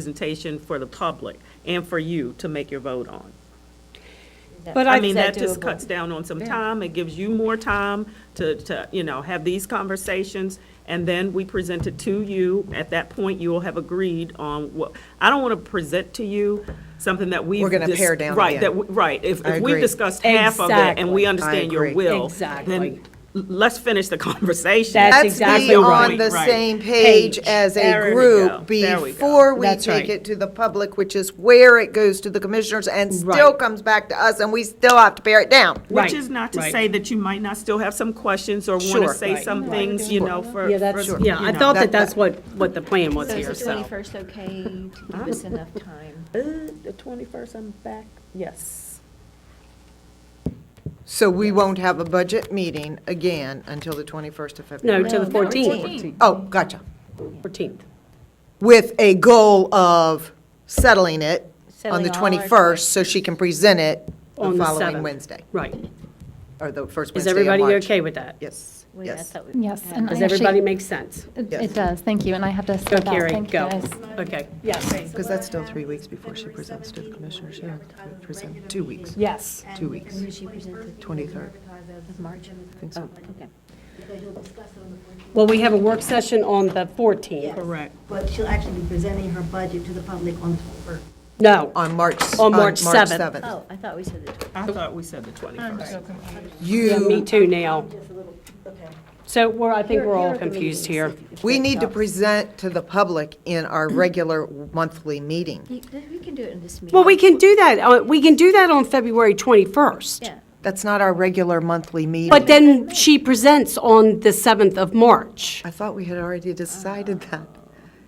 presentation for the public and for you to make your vote on. But I I, mean, that that just doable? cuts down on some Yeah. time, it gives you more time to, to, you know, have these conversations, and then we present it to you, at that point, you will have agreed on what, I don't wanna present to you something that we've. We're gonna dis- pare down Right, again. that, we- right, if, I if we've agree. discussed half of it and Exactly. we I understand your agree. will. Exactly. Then, l- let's finish the conversation. That's Let's exactly be right. on the Right. same page Page. as There a we go. group There we go. before we That's take right. it to the public, which is where it goes to the commissioners and still Right. comes back to us, and we still have to bear it down. Which Right, is not to right. say that you might not still have some questions or want to Sure. say Right. some things, you know, for. Yeah, that's, for- yeah, you I know. thought that that- that's what, what the plan was So here, is the so. twenty-first okay to give us enough time? Uh, The twenty-first, I'm back, yes. So we won't have a budget meeting again until the 21st of No, February. to the No, 14th, Oh, gotcha. 14th. With a goal of settling it on the Settling all our 21st, so she can present it the On the following 7th. Wednesday, Right. or the first Is Wednesday of everybody March. okay with that? Yes, Wait, I yes. thought we Yes, had- and Does I actually- everybody make sense? It Yes. it does, thank you, and I have to Go, step out. Carrie, Thank you, go. guys. Okay, yes, Because that's still three weeks before she presents to the commissioners, yeah, present, two weeks. yes. Two weeks. When she presented 23rd. of March. so. Oh, okay. Well, we have a work session on the 14th. Correct. But she'll actually be presenting her budget to the public on, or No, On March, On on March March 7th. 7th. Oh, I thought we said the I thought we said the twenty-first. yeah, me You, too now. just a little, okay. So we're, I think Here- we're here all are the confused here. meetings, if- if we that need to helps. present to the public in our Mm. regular monthly meeting. You- We can do it in this meeting. Well, we can do that, uh, we can do that on February 21st. Yeah. That's not our regular monthly meeting. But then she presents on the 7th of March. I thought we had already decided that.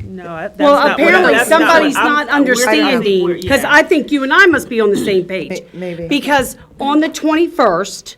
No, that's not. Well, what- apparently that's what somebody's I'm- not we're- I think we're- understanding, because yeah. I think you and I must be on the same page. May- maybe. Because on the 21st,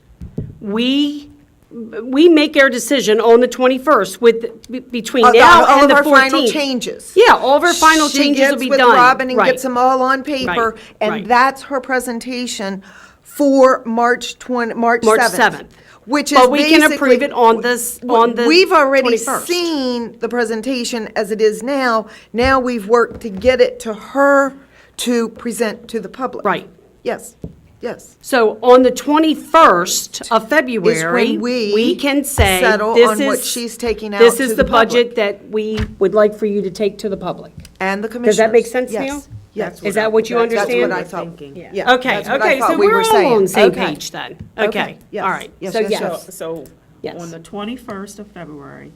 we, we make our decision on the 21st with, be- between Of the- now all and the of 14th. our final changes. Yeah, all of our final changes will be done. She gets with Robin and Right. gets them all on paper, Right, right. and that's her presentation for March 20, March 7th. March 7th. Which is But we can basically- approve it on this, on the We've already 21st. seen the presentation as it is now. Now we've worked to get it to her to present to the public. Right. Yes, yes. So on the 21st of February, we we can say, settle this on what is- she's taking out This to is the the budget public." that we would like for you to take to the public. And the commissioners. Does that make sense Yes, now? Yes. Is that what you That's what understand? I thought. Thinking. Yeah, Okay, that's what I okay, so thought we we're all saying. on the same Okay. page then. Okay, yes, all right. yes, So yes, So, yes, yes. so Yes. on the twenty-first of February,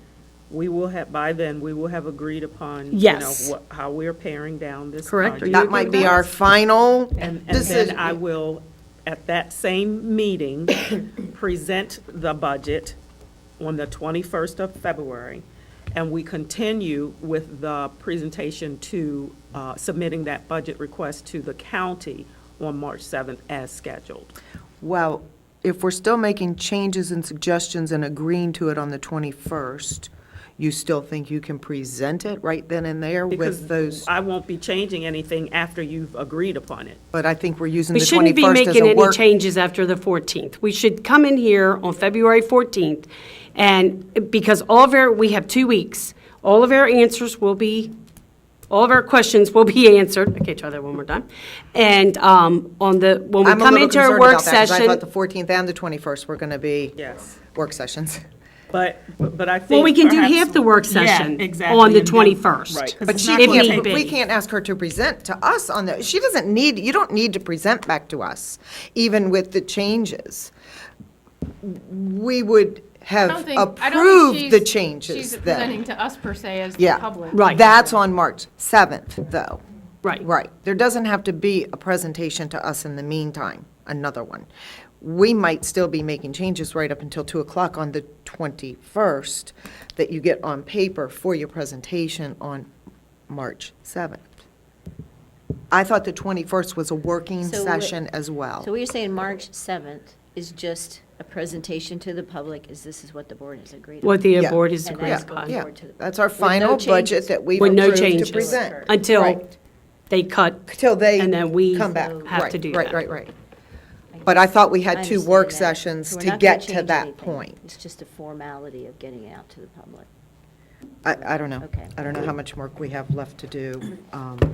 we will have, by then, we will have agreed upon, you know, Yes. what, how we're paring down this Correct. project. That might be our final And, and then decision. I will, at that same meeting, present the budget on the 21st of February, and we continue with the presentation to, uh, submitting that budget request to the county on March 7th as scheduled. Well, if we're still making changes and suggestions and agreeing to it on the 21st, you still think you can present it right then and there with Because those? I won't be changing anything after you've agreed upon it. But I think we're using we the shouldn't be 21st as making a any work. changes after the 14th. We should come in here on February 14th, and, because all of our, we have two weeks. All of our answers will be, all of our questions will be answered. Okay, try that one more time. And um, on the, when we I'm a come little into our concerned work about that, because session. I thought the 14th and the 21st were going to be Yes. work sessions. But, but I think. Well, we can do perhaps- half the work Yeah, session exactly, on the and then- 21st. Right. 'cause But it's she not can't gonna be- take- But We can't ask her to present to us on the, she doesn't need, you don't need to present back to us, even with the changes. We would I don't have think- I don't think approved the she's- changes She's then. presenting to us per se as the Yeah. public. Right. That's on March 7th, though. Right. Right. There doesn't have to be a presentation to us in the meantime, another one. We might still be making changes right up until 2 o'clock on the 21st that you get on paper for your presentation on March 7th. I thought the 21st was a working So we- session as well. So we're saying March 7th is just a presentation to the public, is this is what the board has agreed on? What the Yeah. board is And agreed that's upon. going Yeah, forward to the- that's our with no final budget changes. that we've With no approved changes. to present. Until Right. they cut. Till they And then we come back. have Right, to do Right, that. right, right. But I thought we had two understand work that. sessions So we're to not gonna get to change that anything. point. It's just a formality of getting it out to the public. I, I don't know. Okay. I don't know how much work we have left to do. um,